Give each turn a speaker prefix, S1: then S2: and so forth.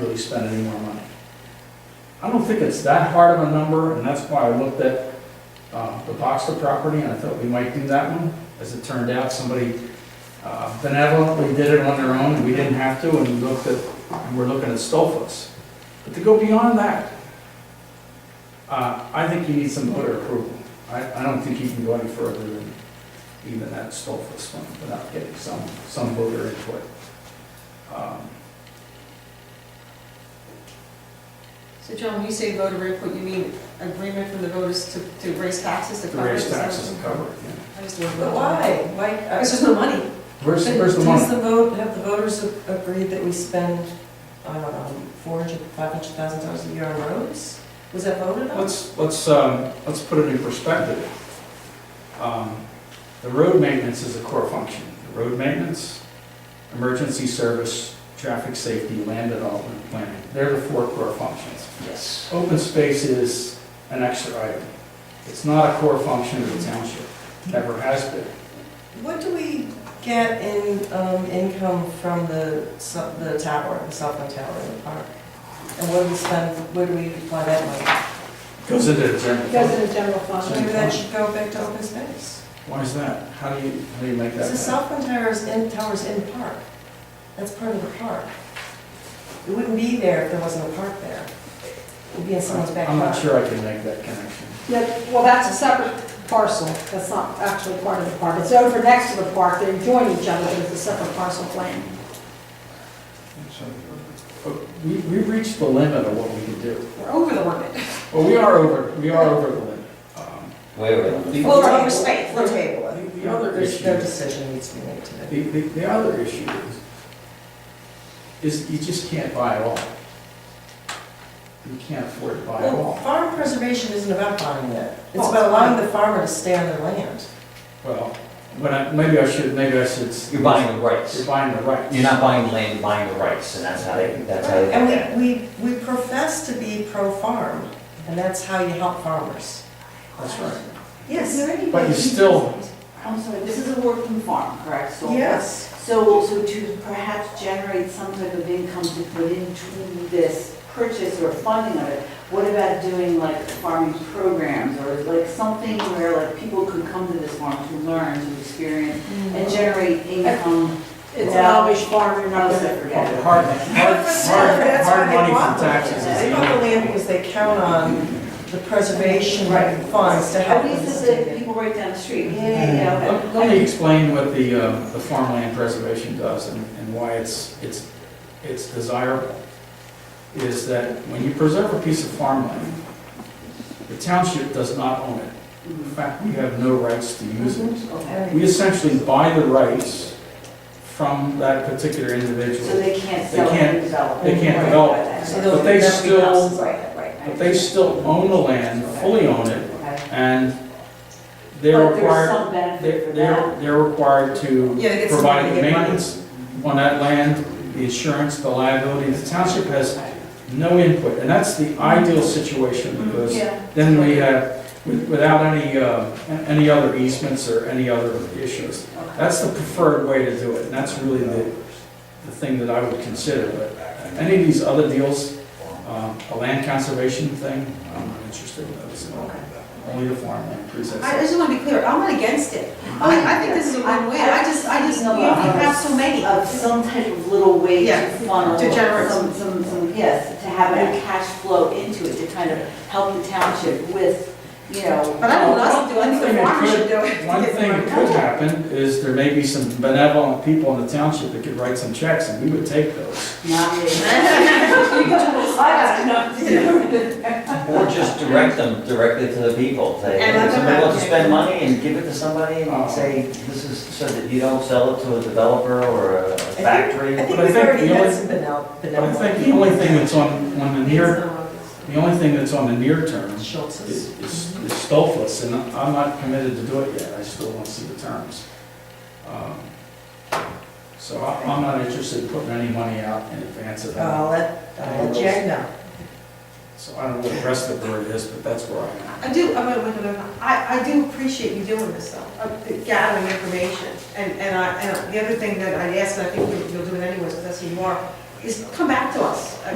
S1: really spend any more money. I don't think it's that hard of a number, and that's why I looked at uh, the Boxer property, and I thought we might do that one. As it turned out, somebody uh, benevolently did it on their own, and we didn't have to, and we looked at, and we're looking at Stolfus. But to go beyond that, uh, I think you need some other approval. I, I don't think you can go any further than even that Stolfus one without getting some, some voter input. Um,
S2: So John, when you say voter input, you mean agreement from the voters to, to raise taxes to
S1: To
S2: cover
S1: raise
S2: this?
S1: taxes and cover it, yeah.
S2: I just don't
S3: But
S2: know.
S3: why? Why? uh,
S2: Because there's no money.
S1: Where's, where's the
S3: Does
S1: money?
S3: the vote, have the voters a- agreed that we spend, I don't know, four hundred, five hundred thousand dollars a year on roads? Was that voted on?
S1: Let's, let's, um, let's put it in perspective. Um, The road maintenance is a core function. The Road maintenance, emergency service, traffic safety, land development, planning. They're the four core functions.
S3: Yes.
S1: Open space is an extra item. It's not a core function of the township, never has been.
S3: What do we get in, um, income from the, su- the tower, the Southland Tower in the park? And what do we spend, where do we apply that money?
S1: Goes into the general
S4: Goes
S1: fund.
S4: in the general fund.
S3: Maybe that should go back to open space.
S1: Why is that? How do you, how do you make that?
S3: Because the Southland Tower is in, tower's in the park. That's part of the park. It wouldn't be there if there wasn't a park there. It would be in someone's
S1: I'm
S3: backyard.
S1: not sure I can make that connection.
S4: Yeah, well, that's a separate parcel, that's not actually part of the park, it's over next to the park, they join each other, but it's a separate parcel plan.
S1: But We, we reached the limit of what we could do.
S4: We're over the limit.
S1: Well, we are over, we are over the limit. Um,
S5: Wait, wait, wait.
S1: the-
S3: Well,
S2: Right.
S3: we'll respect, we'll table it.
S1: The- the other
S3: There's-
S1: issue-
S3: No decision needs to be made today.
S1: The, the, the other issue is, is you just can't buy it all. You can't afford to buy it
S3: Well,
S1: all.
S3: farm preservation isn't about buying it. It's
S4: Oh.
S3: about allowing the farmer to stay on their land.
S1: Well, when I, maybe I should, maybe I should.
S5: You're buying the
S1: You're
S5: rights.
S1: buying the rights.
S5: You're not buying the land, you're buying the rights, and that's how they, that's how they look at it.
S3: And we, we, we profess to be pro-farm, and that's how you help farmers.
S1: That's right.
S6: Is
S3: Yes,
S6: there any
S1: But you
S6: way-
S1: still-
S6: I'm sorry, this is a work from farm, correct? So-
S3: yes.
S6: So, so to perhaps generate some type of income to put into this purchase or funding of it, what about doing like farming programs or like something where like people could come to this farm to learn, to experience and generate income?
S4: It's an Amish farm, you're not gonna
S1: Well,
S6: forget.
S1: the Hard, hard,
S3: That's what
S1: hard, hard
S3: they
S1: money
S3: want
S1: from
S3: the land.
S1: taxes. is
S3: They
S1: the
S3: want the
S1: only-
S3: land because they count on the preservation funds to help
S6: At
S3: them
S6: least
S3: stay
S6: if the
S3: there.
S6: people right down the street, yeah, yeah, yeah, okay.
S1: Let let me explain what the, um, the farmland preservation does and and why it's, it's, it's desirable. Is that when you preserve a piece of farmland, the township does not own it. In fact, we have no rights to use it.
S6: Okay.
S1: We essentially buy the rights from that particular
S6: So
S1: individual.
S6: they can't
S1: They
S6: sell
S1: can't-
S6: and develop.
S1: they can't
S6: Right,
S1: develop.
S6: right,
S3: So
S6: right.
S3: they'll-
S1: But they
S3: they'll be
S1: still-
S3: houses.
S6: Right, right.
S1: But they still own the land, fully own it,
S6: Okay.
S1: and they're
S6: But there's
S1: required,
S6: some benefit
S1: they're,
S6: for that.
S1: they're they're required to
S3: Yeah, they get some money,
S1: providing
S3: they get money.
S1: maintenance on that land, the insurance, the liability, the township has no input, and that's the ideal situation, because
S6: Yeah.
S1: then we have, with- without any, uh, any other easements or any other issues. That's the preferred way to do it, and that's really the, the thing that I would consider, but any of these other deals, um, a land conservation thing, I'm not interested in those, at all. only the farmland presents.
S7: I just want to be clear, I'm not against it. I, I think this is a win-win, I just, I just, we
S6: No, I'm-
S7: have so many.
S6: Of some type of little way to
S3: Yeah,
S6: funnel.
S3: to generate
S6: Some, some, some, yes, to have a cash flow into it, to kind of help the township with, you know.
S7: But I don't know, I do I think the farmer should do it.
S1: One thing that could happen is there may be some benevolent people in the township that could write some checks, and we would take those.
S6: Not me. I got enough to do.
S5: Or just direct them directly to the people, say,
S3: And let
S5: if
S3: them
S5: somebody wants to
S3: allocate
S5: spend
S3: it.
S5: money and give it to somebody
S1: Oh.
S5: and say, this is, so that you don't sell it to a developer or a factory.
S3: I think
S1: But I
S3: we've
S1: think
S3: already
S1: the
S3: had
S1: only-
S3: some benel-
S1: But I
S3: benevolent.
S1: think the only thing that's on, on the near, the only thing that's on the near term is,
S3: Schultz's.
S1: is is Stolfus, and I'm not committed to do it yet, I still want to see the terms. Um, So I- I'm not interested in putting any money out in advance of that,
S3: I'll Uh, let, I'll let Jack know.
S1: so I don't know what the rest of the board is, but that's where I am.
S7: I do, I'm gonna, wait a minute. I, I do appreciate you doing this though, of gathering information. And, and I, and the other thing that I'd ask, and I think you'll- you'll do it anyways, because that's who you are, is come back to us.